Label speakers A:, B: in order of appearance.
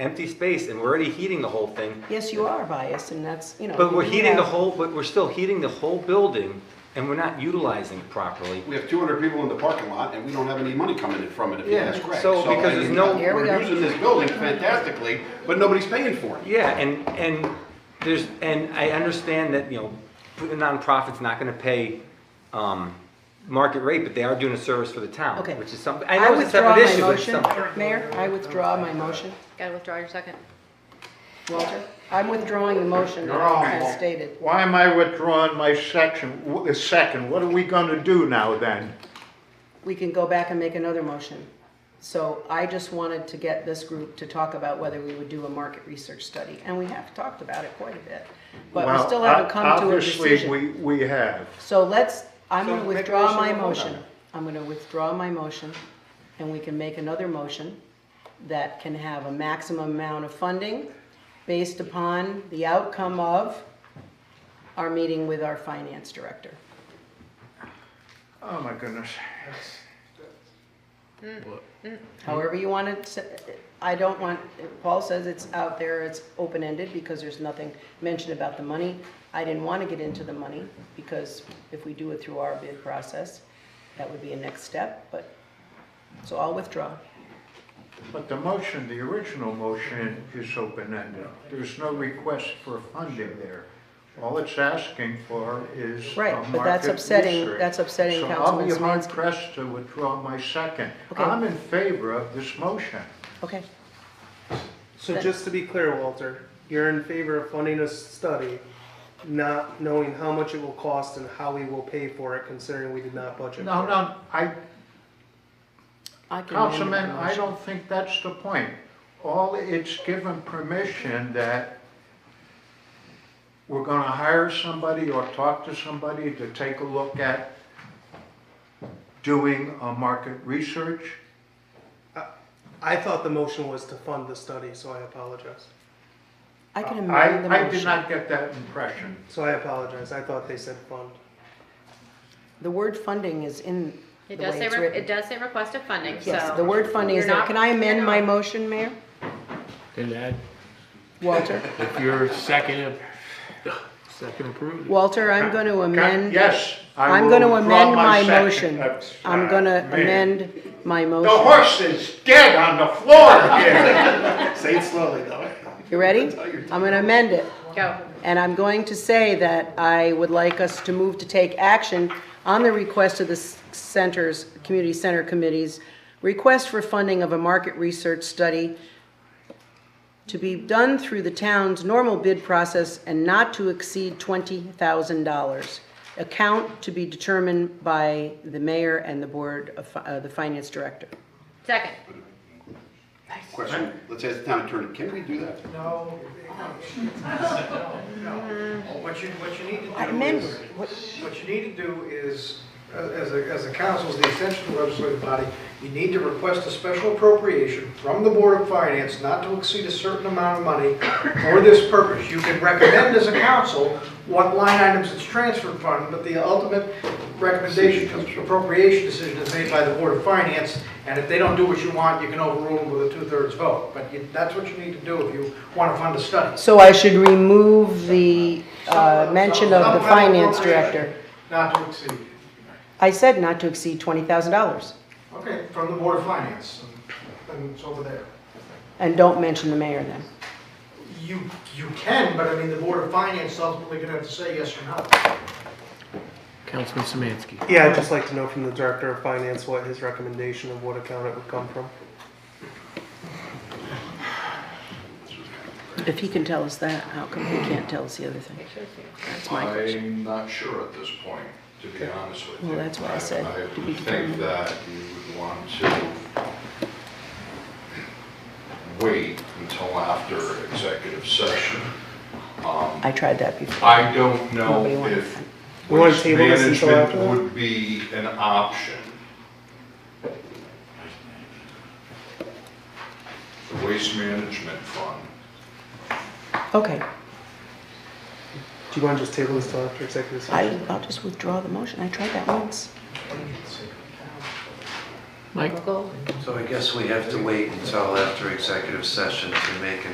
A: empty space and we're already heating the whole thing.
B: Yes, you are biased, and that's, you know.
A: But we're
B: you
A: heating the
B: have-
A: whole, but we're still heating the whole building and we're not utilizing it properly.
C: We have 200 people in the parking lot, and we don't have any money coming in from it, if you
A: Yeah,
C: ask Greg.
A: so
C: I
A: because
C: mean,
A: there's no-
B: Here we go.
C: We're using this building fantastically, but nobody's paying for it.
A: Yeah, and, and there's, and I understand that, you know, the nonprofit's not gonna pay, um, market rate, but they are doing a service for the town,
B: Okay.
A: which is something, I
B: I
A: know it's a separate
B: withdraw my
A: issue, but it's
B: motion,
A: something.
B: Mayor, I withdraw my motion.
D: Gotta withdraw your second.
B: Walter, I'm withdrawing the motion that
E: No.
B: I just stated.
E: Why am I withdrawing my section, w- the second? What are we gonna do now then?
B: We can go back and make another motion. So I just wanted to get this group to talk about whether we would do a market research study, and we have talked about it quite a bit. But we
E: Well,
B: still haven't
E: o-
B: come to a decision.
E: Obviously, we, we have.
B: So let's, I'm gonna
E: So make a
B: withdraw
E: motion
B: my
E: and vote on
B: motion.
E: it.
B: I'm gonna withdraw my motion, and we can make another motion that can have a maximum amount of funding based upon the outcome of our meeting with our finance director.
E: Oh my goodness.
B: However you want it, s- I don't want, Paul says it's out there, it's open-ended because there's nothing mentioned about the money. I didn't want to get into the money because if we do it through our bid process, that would be a next step, but, so I'll withdraw.
E: But the motion, the original motion is open-ended. There's no request for funding there. All it's asking for is a
B: Right, but that's
E: market
B: upsetting-
E: research.
B: that's upsetting Councilman
E: So I'll be hard
B: Smansky.
E: pressed to withdraw my second.
B: Okay.
E: I'm in favor of this motion.
B: Okay,
F: So just to be clear, Walter, you're in favor of funding a study, not knowing how much it will cost and how we will pay for it, considering we did not budget.
E: No,
F: for it.
E: no, I,
B: I can amend my
E: Councilman, I
B: motion.
E: don't think that's the point. All, it's given permission that we're gonna hire somebody or talk to somebody to take a look at doing a market research.
F: I thought the motion was to fund the study, so I apologize.
B: I can amend the
E: I, I did
B: motion.
E: not get that impression.
F: So I apologize. I thought they said fund.
B: The word funding is in the
D: It
B: way
D: does say,
B: it's
D: re- it
B: written.
D: does say request of funding, so.
B: Yes, the word funding is
D: You're
B: there.
D: not-
B: Can I amend
D: you're
B: my
D: not-
B: motion, Mayor?
G: And that,
B: Walter?
G: if you're second, second approved.
B: Walter, I'm going to amend.
E: Yes, I
B: I'm
E: will
B: going to
E: withdraw
B: amend
E: my
B: my
E: second.
B: motion.
E: That's,
B: I'm
E: uh,
B: going to
E: me.
B: amend my
E: The
B: motion.
E: horse is dead on the floor here.
C: Say it slowly, though.
B: You ready? I'm going to amend it.
D: Go.
B: And I'm going to say that I would like us to move to take action on the request of the s- centers, community center committees, request for funding of a market research study to be done through the town's normal bid process and not to exceed $20,000. Account to be determined by the mayor and the board of, fi- uh, the finance director.
D: Second.
C: Question, let's ask the town attorney, can we do that?
E: No.
H: What you, what you need to
B: I
H: do
B: amend
H: is,
B: it. What-
H: what you need to do is, uh, as a, as a council, as the essential legislative body, you need to request a special appropriation from the Board of Finance not to exceed a certain amount of money for this purpose. You can recommend as a council what line items it's transferred from, but the ultimate recommendation, appropriation decision is made by the Board of Finance, and if they don't do what you want, you can overrule them with a two-thirds vote. But you- that's what you need to do if you want to fund a study.
B: So I should remove the uh, mention of the
H: Supplemental
B: finance
H: appropriation
B: director.
H: Not to exceed,
B: I said not to exceed twenty thousand dollars,
H: okay, from the Board of Finance, and and it's over there.
B: and don't mention the mayor then.
H: You, you can, but I mean, the Board of Finance is ultimately gonna have to say yes or no.
G: Councilman Semansky.
F: Yeah, I'd just like to know from the director of finance what his recommendation of what account it would come from.
B: If he can tell us that, how come he can't tell us the other thing? That's my question.
I: I'm not sure at this point, to be honest with you.
B: Well, that's what I said, to be
I: would think
B: determined.
I: that you would want to wait until after executive session. Um,
B: I tried that before.
I: I don't know
B: Nobody wanted
I: if
B: that.
F: We wanna
I: waste
F: table this until after
I: management
F: that?
I: would be an option. The waste management fund.
B: Okay,
F: Do you want to just table this till after executive
B: I,
F: session?
B: I'll just withdraw the motion, I tried that once.
J: Mike?
K: We'll go.
E: So I guess we have to wait until after executive session to make an